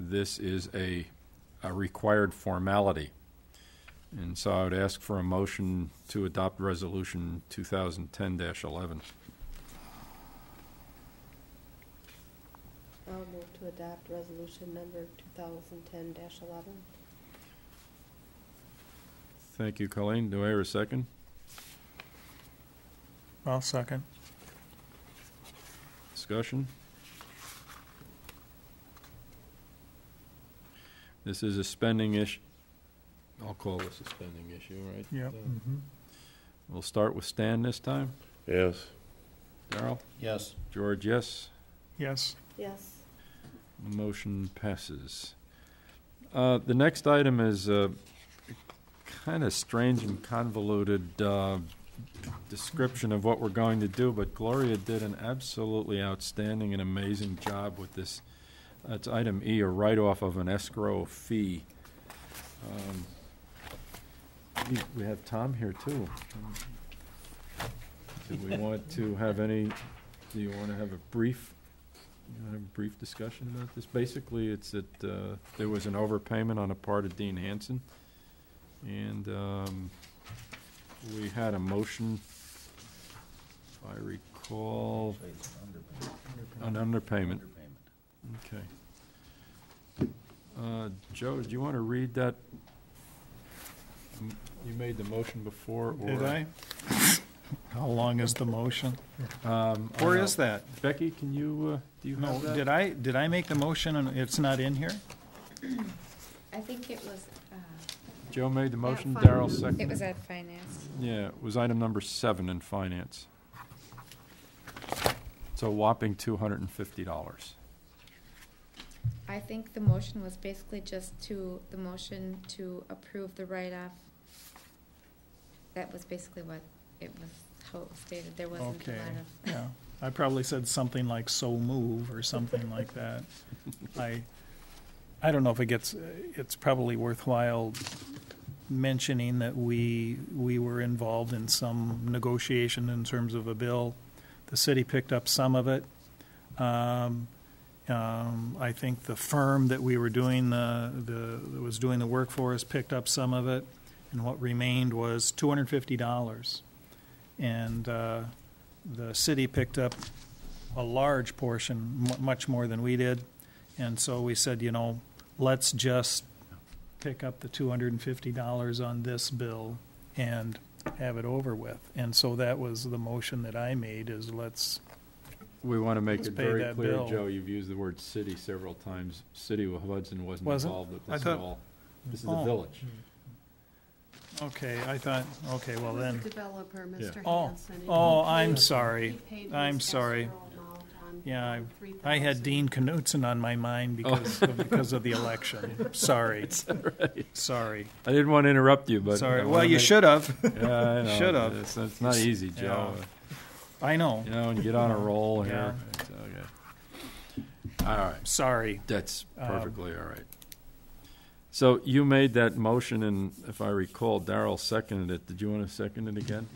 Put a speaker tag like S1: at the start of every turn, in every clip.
S1: this is a, a required formality. And so I would ask for a motion to adopt Resolution 2010-11.
S2: I'll move to adopt resolution number two thousand ten eleven.
S1: Thank you, Colleen. Do I hear a second?
S3: I'll second.
S1: Discussion? This is a spending issue. I'll call this a spending issue, right?
S3: Yep.
S1: We'll start with Stan this time.
S4: Yes.
S1: Darrell?
S5: Yes.
S1: George, yes?
S3: Yes.
S2: Yes,
S1: Motion passes. Uh, The next item is kind of strange and convoluted uh, description of what we're going to do, but Gloria did an absolutely outstanding and amazing job with this. It's item E, a write-off of an escrow fee. Um, we- We have Tom here, too. Do we want to have any, do you want to have a brief you want to have a brief discussion about this? Basically, it's that uh, there was an overpayment on the part of Dean Hanson, and um, we had a motion, if I recall, an underpayment. Okay. Uh, Joe, do you want to read that? M- You made the motion before, or?
S3: Did I? How long is the motion?
S1: Um, I
S3: Or
S1: don't-
S3: is that?
S1: Becky, can you, uh, do you
S3: No,
S1: have that?
S3: did I, did I make the motion and it's not in here?
S6: I think it was, uh,
S1: Joe made the motion,
S6: fin-
S1: Darrell seconded.
S6: it was at finance.
S1: Yeah, it was item number seven in finance. It's a whopping two hundred and fifty dollars.
S6: I think the motion was basically just to, the motion to approve the write-off. That was basically what it was, how it was stated. There wasn't a
S3: Okay,
S6: lot of.
S3: yeah. I probably said something like so move or something like that. I, I don't know if it gets, it's probably worthwhile mentioning that we, we were involved in some negotiation in terms of a bill. The city picked up some of it. Um, um, I think the firm that we were doing the, the, that was doing the work for us picked up some of it. And what remained was two hundred and fifty dollars. And, uh, the city picked up a large portion, mu- much more than we did. And so we said, you know, let's just pick up the two hundred and fifty dollars on this bill and have it over with. And so that was the motion that I made is let's,
S1: We want to make
S3: Let's
S1: it
S3: pay
S1: very
S3: that
S1: clear,
S3: bill.
S1: Joe, you've used the word city several times. City of Hudson wasn't
S3: Wasn't?
S1: involved with
S3: I
S1: this at
S3: thought-
S1: all. This is
S3: Oh.
S1: a village.
S3: okay, I thought, okay, well
S2: Who's the
S3: then,
S2: Developer,
S1: Yeah.
S2: Mr.
S3: Oh,
S2: Hanson. and
S3: oh,
S2: he
S3: I'm
S2: paid-
S3: sorry.
S2: he paid
S3: I'm
S2: his
S3: sorry.
S2: escrow amount on
S3: Yeah, I-
S2: $3,000.
S3: I had Dean Knutson on my mind because, of- because of the election. Sorry, sorry,
S1: I didn't want to interrupt you, but. I
S3: sorry. Well,
S1: wanna
S3: you
S1: make-
S3: should have.
S1: Yeah, I know.
S3: Should have.
S1: It's, it's not easy, Joe.
S3: Yeah. I know,
S1: You know, and get on a roll here.
S3: Yeah.
S1: It's okay. All right.
S3: sorry.
S1: That's
S3: Um,
S1: perfectly all right. So you made that motion, and if I recall, Darrell seconded it. Did you want to second it again?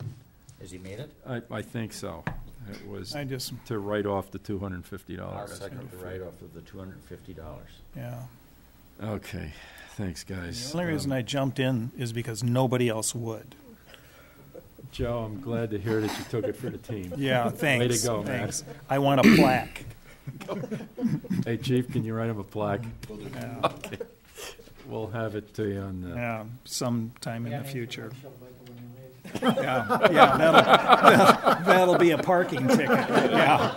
S5: Has he made it?
S1: I, I think so. It was
S3: I just,
S1: to write off the two hundred and fifty
S5: I'll
S1: dollars.
S5: second the write-off of the two hundred and fifty dollars.
S3: yeah.
S1: Okay, thanks,
S3: The
S1: guys.
S3: only reason
S1: Um,
S3: I jumped in is because nobody else would.
S1: Joe, I'm glad to hear that you took it for the team.
S3: Yeah, thanks.
S1: go, Matt.
S3: thanks. I want a plaque.
S1: Hey, Chief, can you write him a plaque?
S3: Yeah,
S1: We'll have it to you on the.
S3: yeah, sometime in the future. Yeah, yeah, that'll, that'll be a parking ticket. Yeah,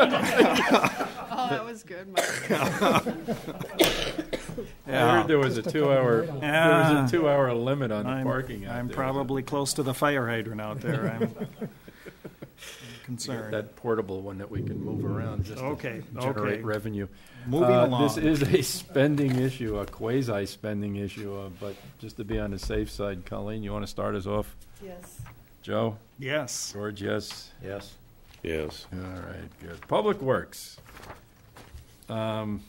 S7: Oh, that was good, Mike.
S1: I heard there was a two-hour, there
S3: Yeah.
S1: was a two-hour limit on the
S3: I'm-
S1: parking out
S3: I'm
S1: there.
S3: probably close to the fire hydrant out there. I'm concerned.
S1: That portable one that we can move around just to
S3: Okay, okay.
S1: generate revenue.
S3: Moving
S1: Uh,
S3: along.
S1: This is a spending issue, a quasi-spending issue, uh, but just to be on the safe side, Colleen, you want to start us off?
S2: Yes.
S1: Joe?
S3: Yes,
S1: George, yes?
S5: Yes.
S4: Yes.
S1: All right, good. Public Works. Um,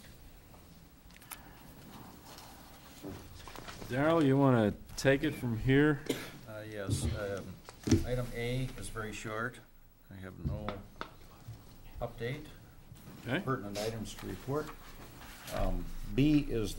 S1: Darrell, you want to take it from here?
S5: Uh, yes, um, item A is very short. I have no update.
S1: Okay.
S5: Pertinent items to report. Um, B is